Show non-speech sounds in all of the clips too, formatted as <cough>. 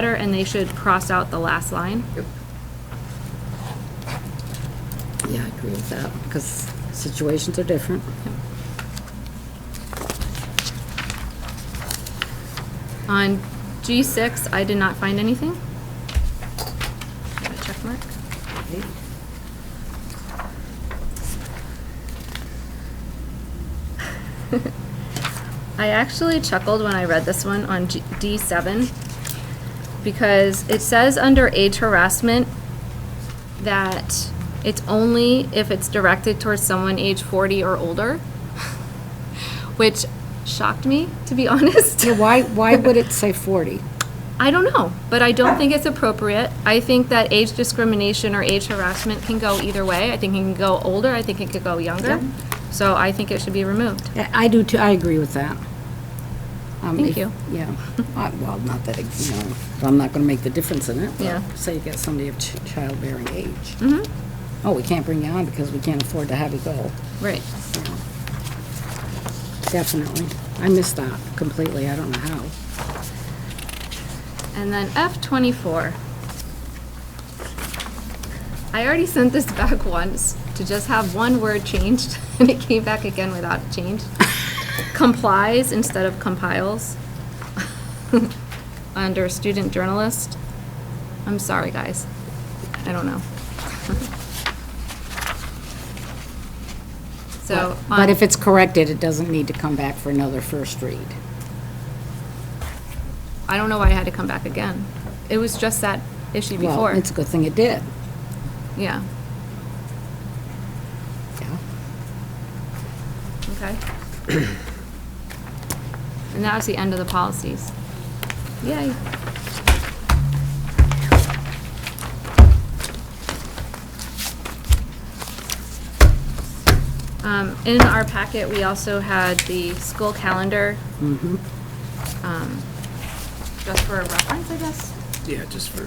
better, and they should cross out the last line. Yeah, I agree with that, because situations are different. On G6, I did not find anything. Got a check mark. I actually chuckled when I read this one on G- D7 because it says under age harassment that it's only if it's directed towards someone age 40 or older, <laughs> which shocked me, to be <laughs> honest. Yeah, why, why would it say 40? I don't know, but I don't think it's appropriate. I think that age discrimination or age harassment can go either way. I think it can go older, I think it could go younger. So I think it should be removed. I I do too, I agree with that. Um, Thank if- you. Yeah, I- well, not that, it- you know, I'm not going to make the difference in it. but Yeah. Say you got somebody of ch- childbearing age. Mhm. Oh, we can't bring you on because we can't afford to have you go. Right. Definitely. I missed that completely, I don't know how. And then F24. I already sent this back <laughs> once to just have one word changed, <laughs> and it came back again without a <laughs> change. Complies instead of compiles <laughs> under student journalist. I'm sorry, guys. I don't know. <laughs> So. um, But on- if it's corrected, it doesn't need to come back for another first read. I don't know why I had to come back again. It was just that issue before. Well, it's a good thing it did. Yeah, Yeah. okay. And that was the end of the policies. Yay. Um, in our packet, we also had the school calendar. Mm-hmm. Um, Just for reference, I guess. Yeah, just for.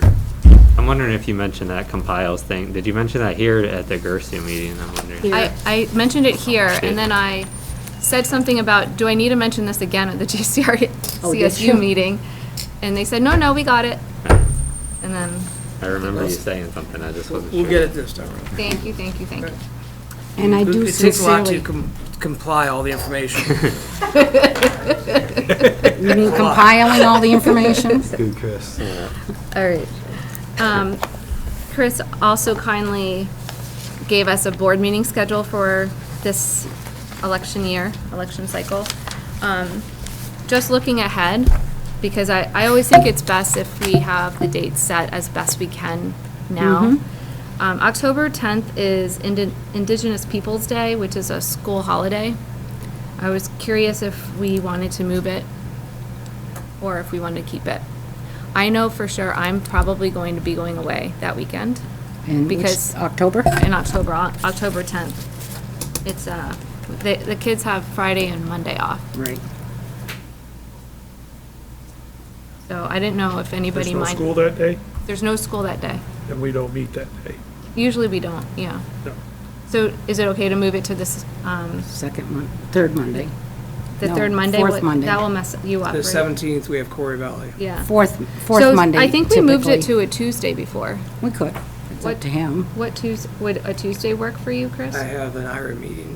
I'm wondering if you mentioned that compiles thing. Did you mention that here at the Gersu meeting? I'm wondering. I, I mentioned it here, Okay. and then I said something about, do I need to mention this again at the <laughs> GCR, Oh, did you? CSU meeting? And they said, no, no, we got it. And then, I remember you saying something, I just wasn't sure. We'll get it this time around. thank you, thank you, thank you. And I do It takes a lot to sincerely, com- comply all <laughs> the information. <laughs> you mean compiling all the information? Good, Chris. All right. Um, Chris also kindly gave us a board meeting schedule for this election year, election cycle. Um, Just looking ahead, because I, I always think it's best if we have the dates set as best we can now. Um, October 10th is Indi- Indigenous Peoples' Day, which is a school holiday. I was curious if we wanted to move it or if we wanted to keep it. I know for sure I'm probably going to be going away that weekend In which- Because- October? in October, on October 10th. It's, uh, the, the kids have Friday and Monday off, Right. so I didn't know if anybody There's no mind. school that day, There's no school that day. and we don't meet that day. Usually we don't, yeah. No. So is it okay to move it to this, um, Second Mon, third Monday. the No, third Monday? fourth What- Monday. That will mess you up, The right? seventeenth, we have Corey Valley. Yeah. Fourth, fourth So Monday I think we moved it to typically. a Tuesday before. We could. It's up What- to him. What Tues, would a Tuesday work for you, Chris? I have an IRA meeting.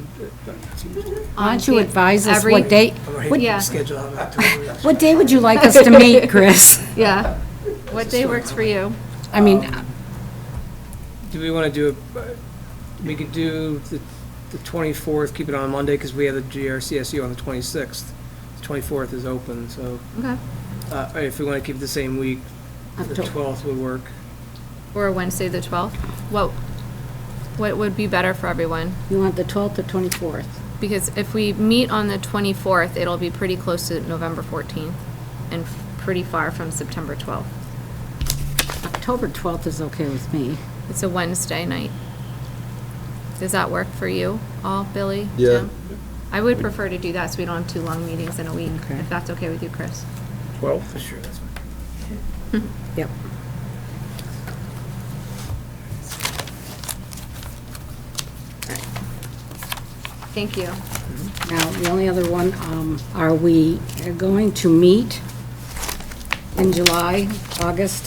that- that Tuesday. Why On don't you the- advise us every- what day, I'm gonna what- hate Yeah. to schedule out October. what day would you like us to <laughs> meet, Chris? Yeah. What day works for you? I mean, <laughs> Um, Do we want to do, a- uh, we could do the the twenty-fourth, keep it on Monday, because we have the GRCSU on the twenty-sixth. Twenty-fourth is open, so Okay. uh, if we want to keep it the same week, the Octo- twelfth would work. Or Wednesday, the 12th? What, what would be better for everyone? you want the 12th or 24th? Because if we meet on the 24th, it'll be pretty close to November 14th and f- pretty far from September 12th. October 12th is okay with me. It's a Wednesday night. Does that work for you all, Billy? Yeah. Jim? I would prefer to do that so we don't have two long meetings in a week, Okay. if that's okay with you, Chris. Well, Sure, that's fine. Yep. Thank you. Now, the only other one, um, are we going to meet in July, August,